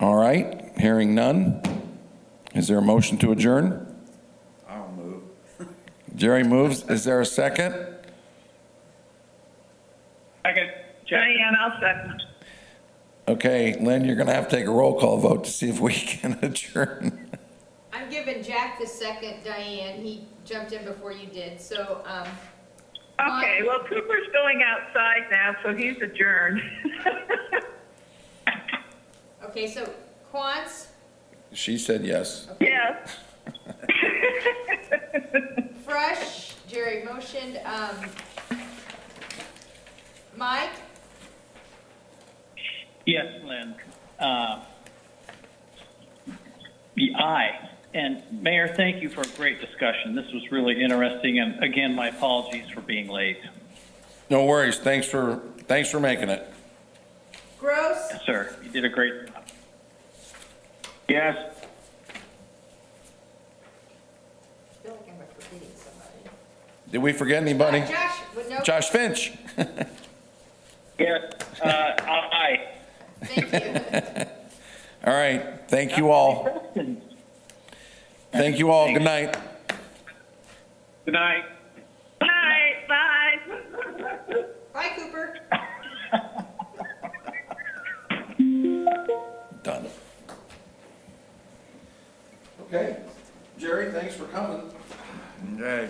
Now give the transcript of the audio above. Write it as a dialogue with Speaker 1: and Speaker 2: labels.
Speaker 1: All right, hearing none. Is there a motion to adjourn?
Speaker 2: I'll move.
Speaker 1: Jerry moves. Is there a second?
Speaker 3: Second, Jack.
Speaker 4: Diane, I'll second.
Speaker 1: Okay, Lynn, you're going to have to take a roll call vote to see if we can adjourn.
Speaker 5: I'm giving Jack the second, Diane, he jumped in before you did, so, um,
Speaker 4: Okay, well, Cooper's going outside now, so he's adjourned.
Speaker 5: okay, so Quants,
Speaker 1: She said yes.
Speaker 4: Yes.
Speaker 5: Fresh, Jerry motioned, um, Mike,
Speaker 3: Yes, Lynn. Uh, The aye. And Mayor, thank you for a great discussion. This was really interesting, and again, my apologies for being late.
Speaker 1: No worries. Thanks for, thanks for making it.
Speaker 5: Gross,
Speaker 3: Yes, sir, you did a great job.
Speaker 2: Yes.
Speaker 5: I feel like I'm forgetting somebody.
Speaker 1: Did we forget anybody?
Speaker 5: Uh, Josh, with no,
Speaker 1: Josh Finch.
Speaker 3: Yes. Uh, aye.
Speaker 5: thank you.
Speaker 1: All right, thank you all.
Speaker 3: Questions?
Speaker 1: Thank you all. Good night.
Speaker 3: Good night.
Speaker 4: Bye, bye.
Speaker 5: Bye, Cooper.
Speaker 1: Done. Okay, Jerry, thanks for coming.
Speaker 2: Okay.